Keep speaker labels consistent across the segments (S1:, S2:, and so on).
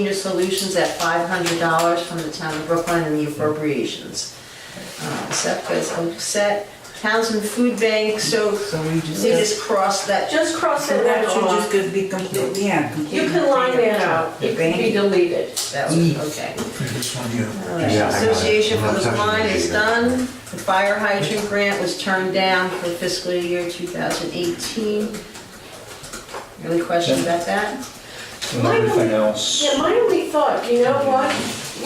S1: Senior Solutions at $500 from the town of Brooklyn and the appropriations. Uh, SEPTA is all set. Townsend Food Bank, so
S2: So we just,
S1: they just crossed that,
S3: Just cross
S2: so
S3: that
S2: that
S3: out
S2: should just
S3: off.
S2: could be complete, yeah, complete.
S3: You can line that out.
S2: The
S3: It can be
S2: bank.
S3: deleted.
S1: that was, okay.
S4: This one here.
S1: All right.
S5: Yeah, I know.
S1: Association for
S5: I'm
S1: the
S5: not touching
S1: Blind
S5: it
S1: is
S5: either.
S1: done. The fire hydrant grant was turned down for fiscal year 2018. Any question about that?
S4: And everything else.
S3: Yeah, my only thought, you know what?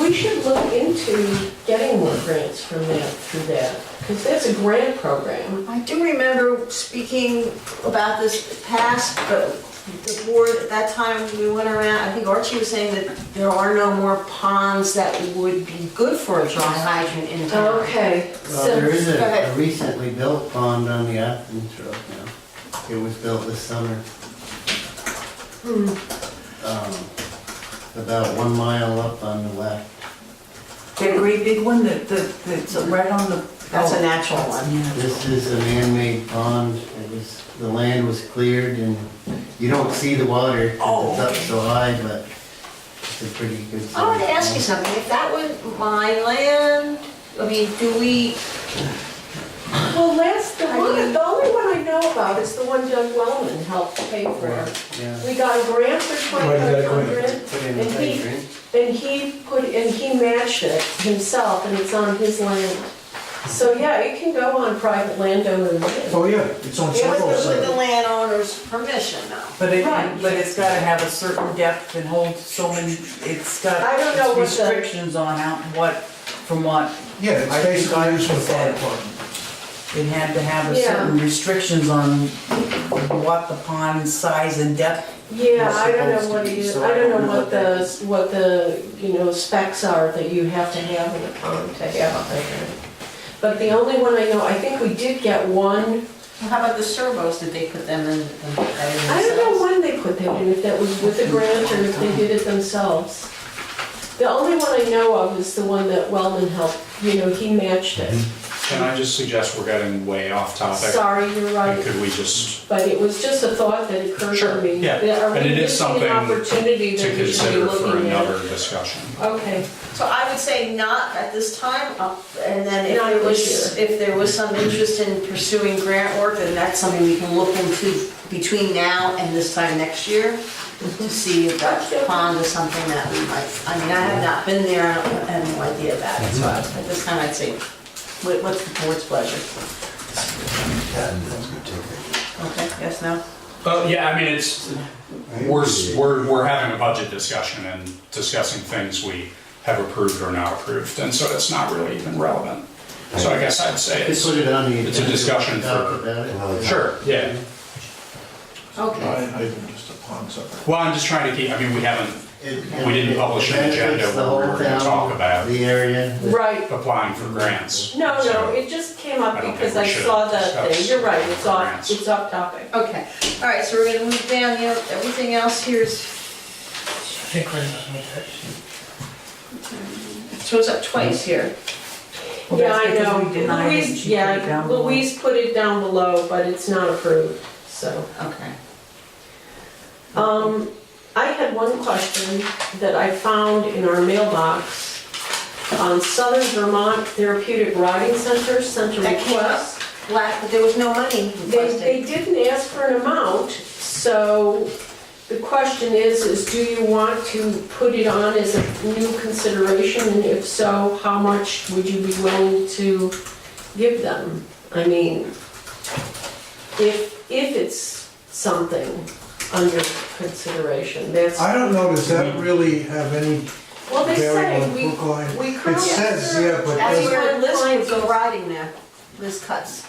S3: We should look into getting more grants from that, through that, because that's a grant program.
S1: I do remember speaking about this past, but the board, at that time, we went around, I think Archie was saying that there are no more ponds that would be good for a dry hydrant in town.
S3: Okay.
S6: Well,
S3: so-
S6: there is
S3: go
S6: a- a
S3: ahead.
S6: recently built pond on the Athens Road now. It was built this summer.
S1: Hmm.
S6: Um, About one mile up on the left.
S2: great big one that, that, that's right on the.
S1: That's a natural one.
S6: This is a man-made pond. It was, the land was cleared and you don't see the water 'cause it's up so high, but it's a pretty good.
S1: Oh. I wanted to
S6: sized
S1: ask you
S6: pond.
S1: something, if that was my land, I mean, do we,
S3: Well, that's the one, the only one I know about is the one Doug Wellman helped pay for.
S6: Yeah.
S3: We got a grant for twenty-five hundred,
S6: Put in
S3: And
S6: a
S3: he-
S6: hydrant.
S3: and he put, and he matched it himself, and it's on his land. So, yeah, it can go on private landowner land.
S4: Oh, yeah, it's on
S3: Yeah,
S4: several
S3: it's
S1: with the
S4: sites.
S1: landowner's permission though?
S2: But it,
S3: Right.
S2: but it's gotta have a certain depth and hold so many, it's got
S3: I don't know what the-
S2: restrictions on out and what, from what,
S4: Yeah, it's
S2: I think
S4: basically
S2: I
S4: used for the fire
S2: said-
S4: department.
S2: it had to have a
S3: Yeah.
S2: certain restrictions on what the pond size and depth.
S3: Yeah, I don't know
S2: It's
S3: what
S2: supposed to be,
S3: you,
S2: so
S3: I don't know
S2: I
S3: what
S2: don't know
S3: the, what the, you know, specs are that you have to have in a pond to have a hydrant. But the only one I know, I think we did get one,
S1: How about the servos, did they put them in? them- that in
S3: I don't know
S1: themselves?
S3: when they put that in, if that was with a grant or if they did it themselves. The only one I know of is the one that Wellman helped, you know, he matched it.
S7: Can I just suggest we're getting way off topic?
S3: Sorry, you're
S7: And
S3: right,
S7: Could we just,
S3: but it was just a thought that occurred to
S7: Sure,
S3: me.
S7: yeah,
S3: That are
S7: and
S3: we
S7: it is
S3: missing an
S7: something
S3: Opportunity
S7: to
S3: that we should be
S7: consider for
S3: looking at.
S7: another discussion?
S3: Okay,
S1: So I would say not at this time, uh, and then if
S3: Not
S1: there
S3: this
S1: was, if there was some interest in pursuing grant work, then that's something we can look into between now and this time next year, to see if that pond is something that we might, I mean, I have not been there, I don't- I have no idea about it, so I- at this time, I'd say, what- what's the board's pleasure? Okay, yes, no?
S7: Uh, yeah, I mean, it's, we're, we're, we're having a budget discussion and discussing things we have approved or not approved, and so it's not really even relevant. So I guess I'd say
S6: Just
S7: it's,
S6: put it on the.
S7: It's a
S6: agenda.
S7: discussion
S6: Talk
S7: for-
S6: about it.
S7: sure, yeah.
S1: Okay.
S4: I, I even just a pond separate.
S7: Well, I'm just trying to keep, I mean, we haven't
S6: It-
S7: We didn't publish an agenda
S6: It benefits the
S7: where we
S6: whole
S7: were gonna
S6: town,
S7: talk about-
S6: The area.
S3: right.
S7: applying for grants.
S3: No, no,
S7: so-
S3: it just came up
S7: I don't think
S3: because
S7: we
S3: I
S7: should
S3: saw that thing,
S7: discuss
S3: you're right, it's off,
S7: grants.
S3: it's off topic.
S1: Okay, all right, so we're gonna move down, you know, everything else here is. So it's up twice here.
S2: Well,
S3: Yeah,
S2: that's
S3: I
S2: because
S3: know,
S2: we denied it and
S3: Louise,
S2: she put it
S3: yeah,
S2: down below.
S3: Louise put it down below, but it's not approved, so.
S1: Okay.
S3: Um, I had one question that I found in our mailbox. On Southern Vermont Therapeutic Riding Center sent a
S1: That came up?
S3: request.
S1: Black, but there was no money
S3: They, they
S1: requested.
S3: didn't ask for an amount, so the question is, is do you want to put it on as a new consideration? And if so, how much would you be willing to give them? I mean, if, if it's something under consideration, that's,
S4: I don't know, does that really have any
S3: well, they say,
S4: bearing on
S3: we,
S4: Brookline?
S3: we
S4: It
S3: currently.
S4: says, yeah, but
S1: That's
S4: does-
S1: where
S3: Those-
S1: Liz would go riding there, Liz cuts.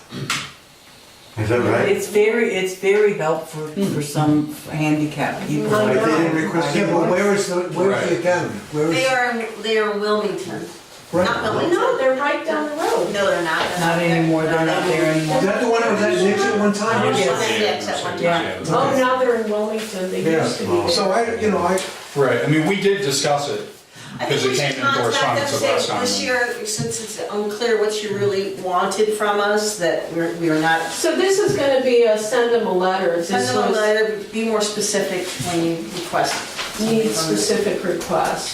S5: Is that right?
S2: It's very, it's very helpful
S3: Hmm.
S2: for some handicapped people.
S3: I
S4: Like, they
S3: know.
S4: didn't request, yeah, but where is the, where's the
S7: Right.
S4: academy? Where
S1: They
S4: is,
S1: are, in- they are in Wilmington. Not
S4: right?
S1: Wilmington.
S3: No, they're right down the road.
S1: No, they're not. They're
S2: Not anymore, they're not there anymore.
S4: Is that the one that was at Nick's at one time?
S7: Yes,
S3: Yes.
S7: yeah,
S1: Yes, at one
S7: yeah,
S2: time.
S7: yeah.
S3: Oh, now they're in Wilmington, they
S4: Yeah.
S3: used to be there.
S4: So I, you know, I,
S7: Right, I mean, we did discuss it,
S1: I think
S7: because
S1: we
S7: it
S1: should
S7: came in
S1: contact
S7: correspondence
S1: them,
S7: of
S1: say,
S7: last time.
S1: This year, since it's unclear what you really wanted from us, that we're, we are not
S3: So this is gonna be a send them a letter. This
S1: Send them a
S3: was-
S1: letter, be more specific when you request
S3: need specific requests.